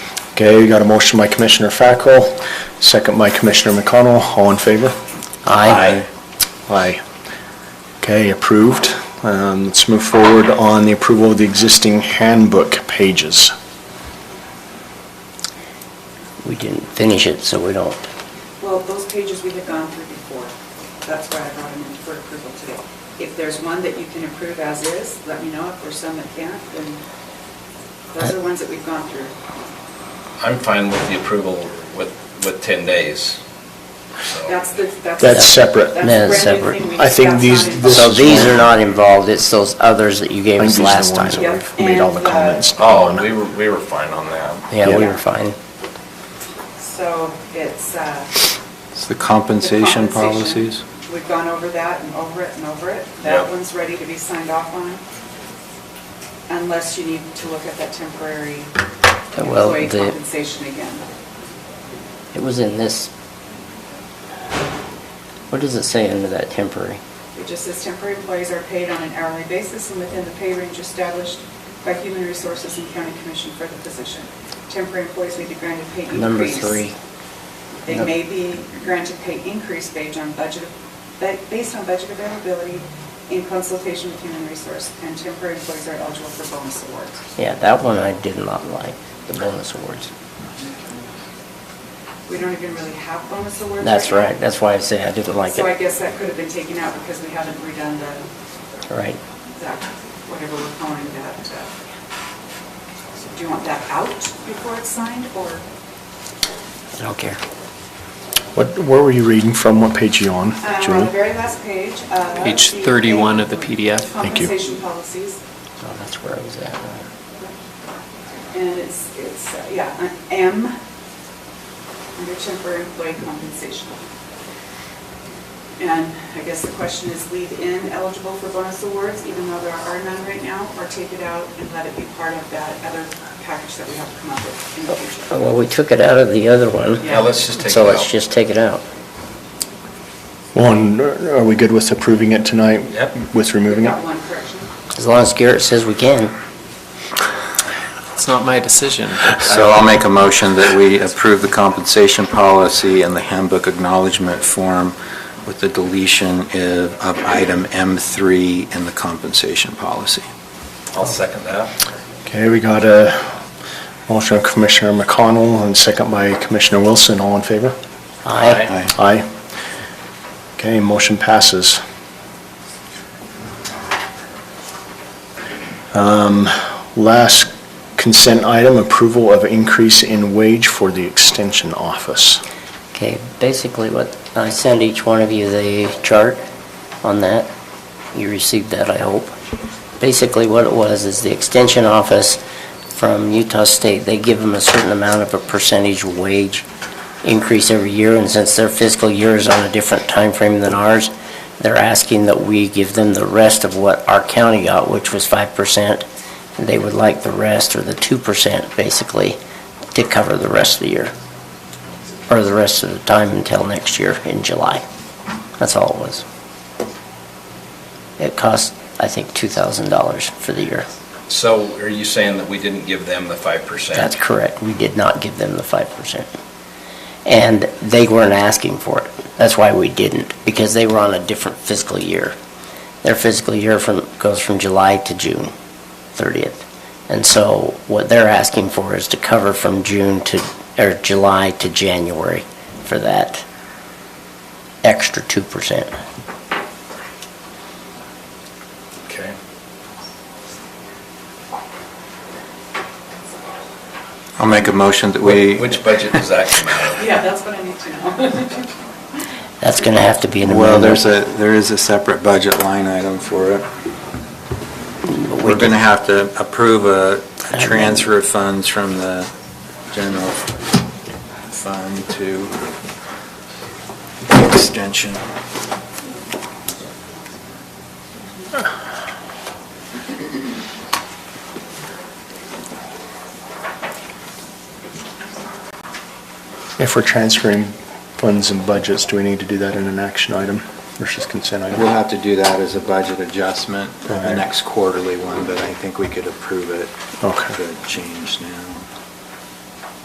Okay, we got a motion by Commissioner Fackrell, second by Commissioner McConnell. All in favor? Aye. Aye. Okay, approved. Um, Let's move forward on the approval of the existing handbook pages. We didn't finish it, so we don't. Well, those pages we had gone through before. That's why I brought them in for approval today. If there's one that you can approve as is, let me know. If there's some that can't, then those are ones that we've gone through. I'm fine with the approval with, with 10 days. so. That's the, that's. That's separate. That's the brand new That's separate. thing we I think discussed these- on it. this- So these are not involved, it's those others that you gave I think these us are the last ones time. that Yep, We've made all the and, uh, comments. Oh, on. we were, we were fine on that. Yeah, we Yeah. were fine. So it's, uh. It's the the compensation policies. compensation. We've gone over that and over it and over it. Yep. That one's ready to be signed off on. Unless you need to look at that temporary Well, employee the- compensation again. It was in this. What does it say under that temporary? It just says temporary employees are paid on an hourly basis and within the pay range established by Human Resources and County Commission for the position. Temporary employees may be granted pay increase. Number three. They may be granted pay increase based on budget, ba- based on budget availability in consultation with Human Resource, and temporary employees are eligible for bonus awards. Yeah, that one I did not like, the bonus awards. We don't even really have bonus awards. That's now. right, that's why I say I didn't like So I it. guess that could have been taken out because we haven't redone the, Right. that, whatever we're calling that. uh, so Do you want that out before it's signed, or? I don't care. What, where were you reading from? What page are you on, Uh, On the Julie? very last page. uh, Page the 31 of the PDF. Thank you. Compensation policies. Oh, that's where I was at. And it's, it's, uh, yeah, an M, under temporary employee compensation. And I guess the question is leave in eligible for bonus awards, even though there are none right now, or take it out and let it be part of that other package that we have to come up with in the future. Uh, Well, we took it out of the other one. Yeah, let's just take So it let's out. just take it out. One, are we good with approving it tonight? Yep. With removing Got it? one correction. As long as Garrett says we can. It's not my decision. So I'll make a motion that we approve the compensation policy and the handbook acknowledgement form with the deletion of of item M3 in the compensation policy. I'll second that. Okay, we got a motion of Commissioner McConnell and second by Commissioner Wilson. All in favor? Aye. Aye. Aye. Okay, motion passes. Um, Last consent item, approval of increase in wage for the extension office. Okay, basically what, I send each one of you the chart on that. You received that, I hope. Basically what it was is the extension office from Utah State, they give them a certain amount of a percentage wage increase every year, and since their fiscal year is on a different time frame than ours, they're asking that we give them the rest of what our county got, which was five percent. They would like the rest, or the two percent, basically, to cover the rest of the year or the rest of the time until next year in July. That's all it was. It cost, I think, $2,000 for the year. So are you saying that we didn't give them the 5%? That's correct. We did not give them the 5%. And they weren't asking for it. That's why we didn't, because they were on a different fiscal year. Their fiscal year from, goes from July to June 30th. And so what they're asking for is to cover from June to, or July to January for that extra 2%. Okay. I'll make a motion that we... Wh- Which budget does that come out of? Yeah, that's what I need to know. That's going to have to be an Well, amendment. there's a, there is a separate budget line item for it. But we We're going to did- have to approve a a Amendment. transfer of funds from the general fund to the extension. If we're transferring funds and budgets, do we need to do that in an action item versus consent item? We'll have to do that as a budget adjustment, the Alright. next quarterly one, but I think we could approve it. Okay. The change now.